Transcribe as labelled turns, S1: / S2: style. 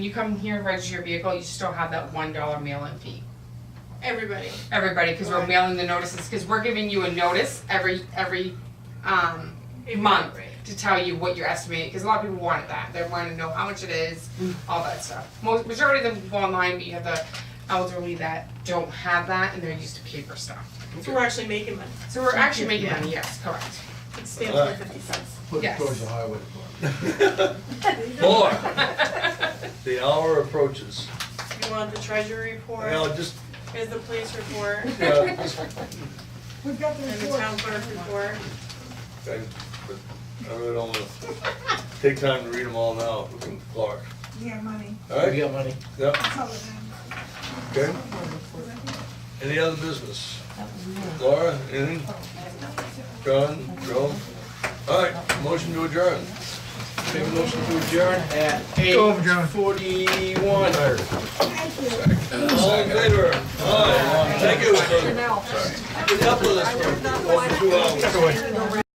S1: You come here and register your vehicle, you still have that one dollar mail-in fee.
S2: Everybody.
S1: Everybody, because we're
S2: Right.
S1: mailing the notices, because we're giving you a notice every, every, um, month
S2: Right.
S1: to tell you what you're estimating, because a lot of people wanted that, they wanna know how much it is, all that stuff. Most, majority of them go online, but you have the elderly that don't have that, and they're used to paper stuff.
S2: So we're actually making money.
S1: So we're actually making money, yes, correct.
S2: It stands for fifty cents.
S3: Put it
S1: Yes.
S3: towards the highway department.
S4: Four, the hour approaches.
S2: You want the treasury report,
S4: Now, just,
S2: is the police report,
S4: yeah, just,
S5: We've got the
S2: and the
S5: report.
S2: town clerk report.
S4: I, but I really don't wanna take time to read them all now, we can Clark.
S5: Yeah, money.
S4: All
S3: We
S4: right,
S3: got money.
S4: yeah,
S5: It's all around.
S4: okay. Any other business? Laura, anything? John, Joe? All right, motion to adjourn.
S3: Make a motion to adjourn at eight forty-one.
S5: Thank you.
S4: All in favor? Aye. Thank you. for- Put up with us for over two hours.